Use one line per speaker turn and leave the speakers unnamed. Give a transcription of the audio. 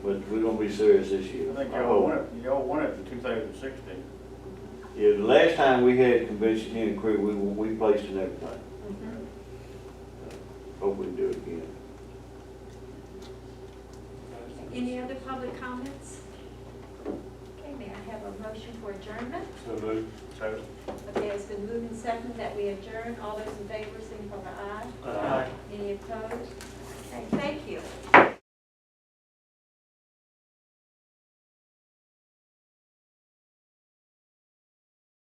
But we're gonna be serious this year.
I think
I
y'all
hope.
won it, y'all won it in two thousand sixteen.
Yeah, the last time we had convention here in Creek, we, we placed in everything.
Mm-hmm.
Hope we can do it again.
Any other public comments? Okay, may I have a motion for adjournment?
So moved. So.
Okay, it's been moved and seconded that we
uh,
adjourn. All those in favor, signify by aye. Any opposed? Okay, thank you.